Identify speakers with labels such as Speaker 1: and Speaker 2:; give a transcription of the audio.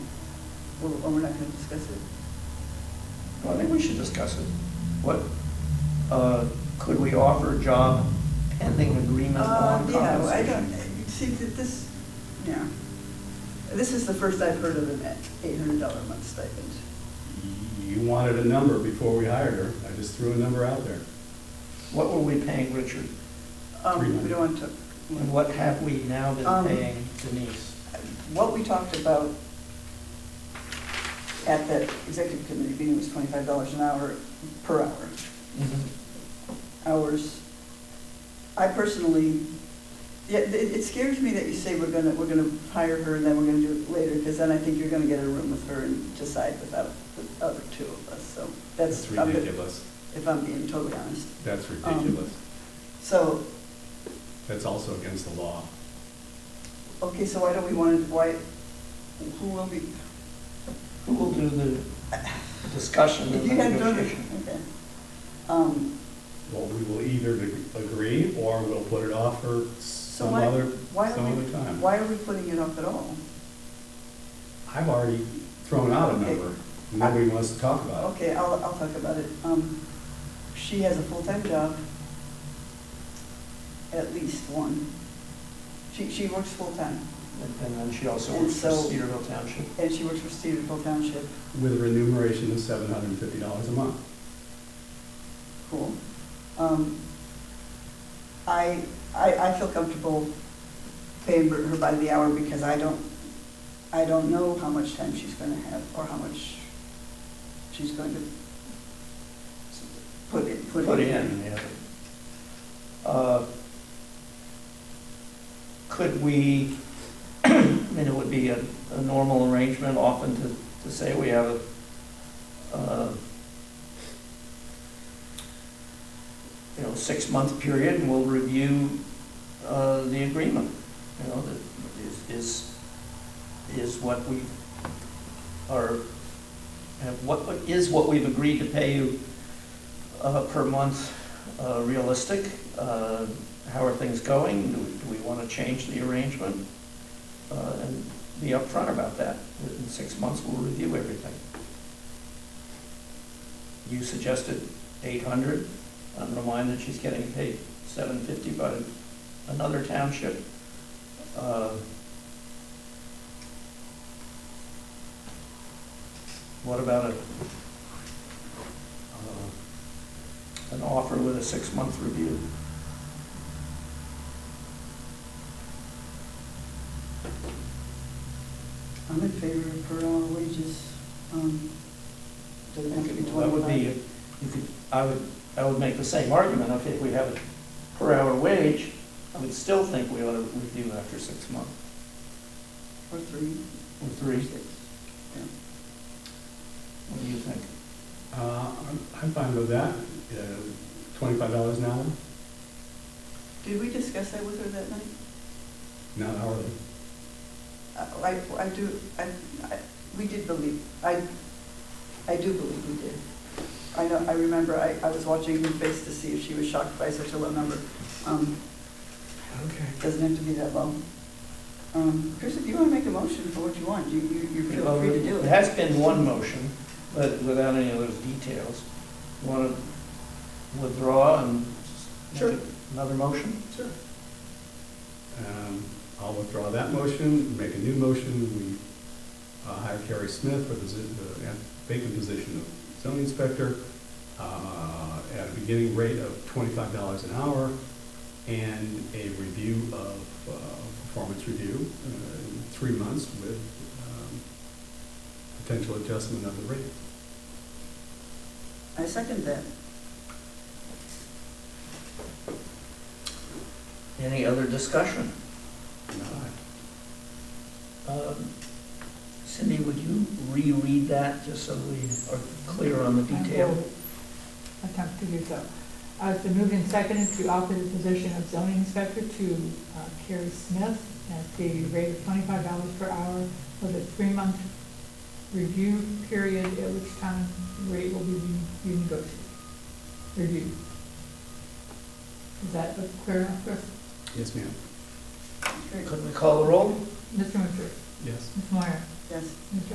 Speaker 1: Or or we're not going to discuss it?
Speaker 2: Well, I think we should discuss it. What, uh, could we offer a job pending agreement
Speaker 1: Uh,
Speaker 2: on
Speaker 1: Yeah, I don't,
Speaker 2: compensation?
Speaker 1: see, that this, yeah, this is the first I've heard of an eight hundred dollar a month stipend.
Speaker 3: You wanted a number before we hired her. I just threw a number out there.
Speaker 2: What were we paying Richard?
Speaker 1: Um, we don't want to,
Speaker 2: And what have we now been
Speaker 1: Um,
Speaker 2: paying Denise?
Speaker 1: what we talked about at the executive committee meeting was twenty-five dollars an hour per hour,
Speaker 2: Mm-hmm.
Speaker 1: hours. I personally, yeah, it, it scares me that you say we're gonna, we're gonna hire her and then we're gonna do it later, because then I think you're gonna get in a room with her and decide without the other two of us, so that's. a bit- Um,
Speaker 3: ridiculous.
Speaker 1: if I'm being totally honest.
Speaker 3: That's ridiculous.
Speaker 1: So,
Speaker 3: That's also against the law.
Speaker 1: okay, so why don't we want to, why, who will be?
Speaker 2: Who will do the discussion
Speaker 1: If
Speaker 2: and
Speaker 1: you
Speaker 2: the
Speaker 1: had voted-
Speaker 2: negotiation?
Speaker 1: okay. Um,
Speaker 3: Well, we will either ag- agree or we'll put it off for
Speaker 1: So
Speaker 3: some
Speaker 1: why,
Speaker 3: other,
Speaker 1: why are
Speaker 3: some
Speaker 1: we,
Speaker 3: other time.
Speaker 1: why are we putting it up at all?
Speaker 3: I've already thrown out a
Speaker 1: Okay.
Speaker 3: number. Nobody wants to talk about it.
Speaker 1: Okay, I'll, I'll talk about it. Um, she has a full-time job, at least one. She, she works full-time,
Speaker 2: And then she also
Speaker 1: And
Speaker 2: works for
Speaker 1: so-
Speaker 2: Cedarville Township.
Speaker 1: and she works for Cedarville Township.
Speaker 3: With a remuneration of seven hundred and fifty dollars a month.
Speaker 1: Cool. Um, I, I, I feel comfortable paying her by the hour because I don't, I don't know how much time she's gonna have or how much she's going to put in, put in.
Speaker 2: Put in, yeah. Uh, Could we, I mean, it would be a, a normal arrangement often to, to say we have a, uh, you know, six-month period and we'll review, uh, the agreement, you know, that is, is, is what we are, have- what, what is what we've agreed to pay you uh, per month uh, realistic? Uh, How are things going? Do we- Do we want to change the arrangement? Uh, And be upfront about that. In six months, we'll review everything. You suggested 800. I'm reminded she's getting paid 750 by another township. Uh, What about a uh, an offer with a six-month review.
Speaker 1: I'm in favor of per hour wages. Um, Doesn't have to be
Speaker 2: That would be,
Speaker 1: twenty-five.
Speaker 2: you could, I would, I would make the same argument, if we have a per-hour wage, I would still think we ought to review after six months,
Speaker 1: Or three,
Speaker 2: or three.
Speaker 1: six. Yeah.
Speaker 2: What do you think?
Speaker 3: Uh, I'm, I'm fine with that. Uh, Twenty-five dollars an hour,
Speaker 1: Did we discuss that with her that night?
Speaker 3: not hourly.
Speaker 1: Uh, I, I do, I, I, we did believe, I, I do believe we did. I know, I remember, I, I was watching her face to see if she was shocked by such a low number. Um,
Speaker 2: Okay.
Speaker 1: doesn't have to be that low. Um, Chris, if you wanna make a motion for what you want, you, you, you feel free to do
Speaker 2: It
Speaker 1: it.
Speaker 2: has been one motion, but without any of those details. You Want to withdraw and make
Speaker 1: Sure.
Speaker 2: another motion?
Speaker 1: Sure.
Speaker 3: Um, I'll withdraw that motion, make a new motion, we uh, hire Carrie Smith for the zi- the vacant position of zoning inspector uh, at a beginning rate of twenty-five dollars an hour and a review of, uh, performance review, uh, in three months with um, potential adjustment of the rate.
Speaker 1: I second that.
Speaker 2: Any other discussion?
Speaker 3: Not
Speaker 2: Um, Cindy, would you reread that just so we are clear on the detail?
Speaker 4: I will attempt to do so. Uh, It's been moved and seconded to offer the position of zoning inspector to uh, Carrie Smith at the rate of twenty-five dollars per hour with a three-month review period, at which time the rate will be re- renegotiated, reviewed. Is that clear enough, Chris?
Speaker 3: Yes, ma'am.
Speaker 1: Great.
Speaker 2: Could we call the roll?
Speaker 4: Mr. Winfrey?
Speaker 3: Yes.
Speaker 4: Ms. Meyer?
Speaker 1: Yes.
Speaker 4: Mr.